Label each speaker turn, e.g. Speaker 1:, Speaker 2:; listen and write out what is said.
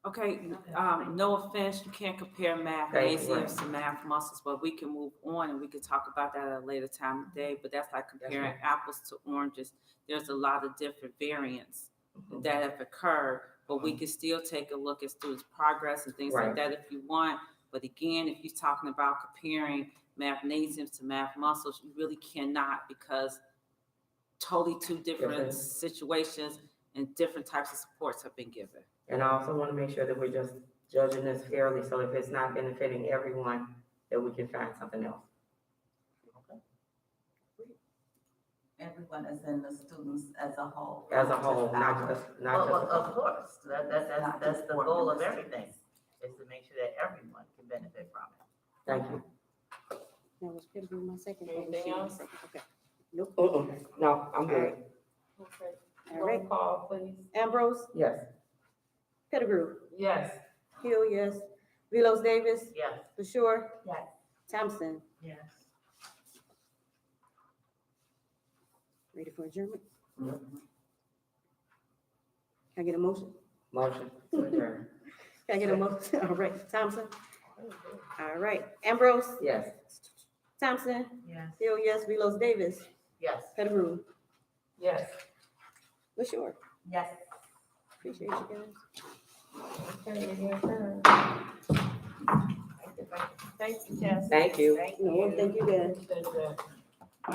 Speaker 1: Okay, um, no offense, you can't compare math,
Speaker 2: Right,
Speaker 1: ACFs to math muscles, but we can move on and we can talk about that at a later time of day, but that's like comparing apples to oranges. There's a lot of different variants
Speaker 2: Mhm.
Speaker 1: that have occurred, but we can still take a look at students' progress and things like
Speaker 2: Mm-hmm. Right.
Speaker 1: that if you want. But again, if you're talking about comparing mathnasiums to math muscles, you really cannot because totally two different
Speaker 2: Different.
Speaker 1: situations and different types of supports have been given.
Speaker 2: And I also want to make sure that we're just judging this fairly, so if it's not benefiting everyone, that we can find something else.
Speaker 3: Everyone is in the students as a whole.
Speaker 2: As a whole, not
Speaker 3: ours.
Speaker 2: just,
Speaker 4: Well,
Speaker 2: not
Speaker 4: well,
Speaker 2: just,
Speaker 4: of course, that, that's, that's, that's the goal of everything, is to make sure that everyone can benefit from it.
Speaker 2: thank you.
Speaker 5: That was gonna be my second. thing.
Speaker 1: Anything else?
Speaker 5: Okay.
Speaker 2: Mm-mm, No, I'm good,
Speaker 5: All right.
Speaker 4: call, please.
Speaker 5: Ambrose,
Speaker 2: yes.
Speaker 5: Pettigrew,
Speaker 4: Yes.
Speaker 5: Hill, yes. Velos Davis,
Speaker 4: Yes.
Speaker 5: LaShure,
Speaker 3: Yes.
Speaker 5: Thompson.
Speaker 4: Yes.
Speaker 5: Ready for adjournment?
Speaker 2: Mhm.
Speaker 5: Can I get a motion?
Speaker 2: Motion to adjourn,
Speaker 5: Can I get a motion? All right, Thompson. All right, Ambrose,
Speaker 2: yes.
Speaker 5: Thompson,
Speaker 4: Yes.
Speaker 5: Hill, yes. Velos Davis,
Speaker 4: Yes.
Speaker 5: Pettigrew,
Speaker 4: Yes.
Speaker 5: LaShure.
Speaker 3: Yes.
Speaker 5: Appreciate you guys.
Speaker 4: Thank you, Jess.
Speaker 2: Thank you.
Speaker 4: Thank
Speaker 5: No,
Speaker 4: you.
Speaker 5: thank you guys.
Speaker 4: Thank you.